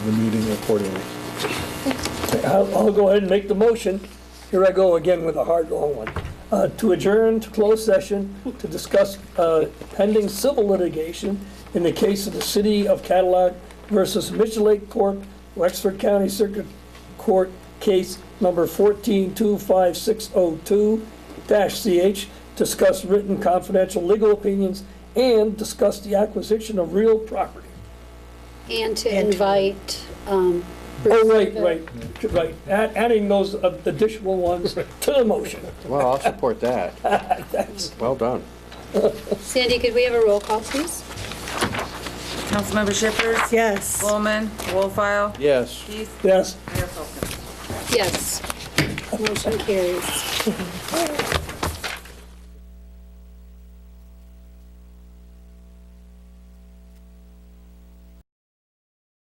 the meeting accordingly. I'll, I'll go ahead and make the motion. Here I go again with a hard, long one. Uh, to adjourn to closed session to discuss, uh, pending civil litigation in the case of the city of Cadillac versus Mitchell Lake Corp., Wexford County Circuit Court, case number fourteen two five six oh two CH, discuss written confidential legal opinions and discuss the acquisition of real property. And to invite, um, Oh, right, right, right, Add- adding those uh, additional ones to the motion. Well, I'll support that. Well done. Sandy, could we have a roll call, please? Councilmember Shippers. Yes. Bowman, Wolfile. Yes. Keith. Yes. Mayor Folkins. Yes. Motion carries.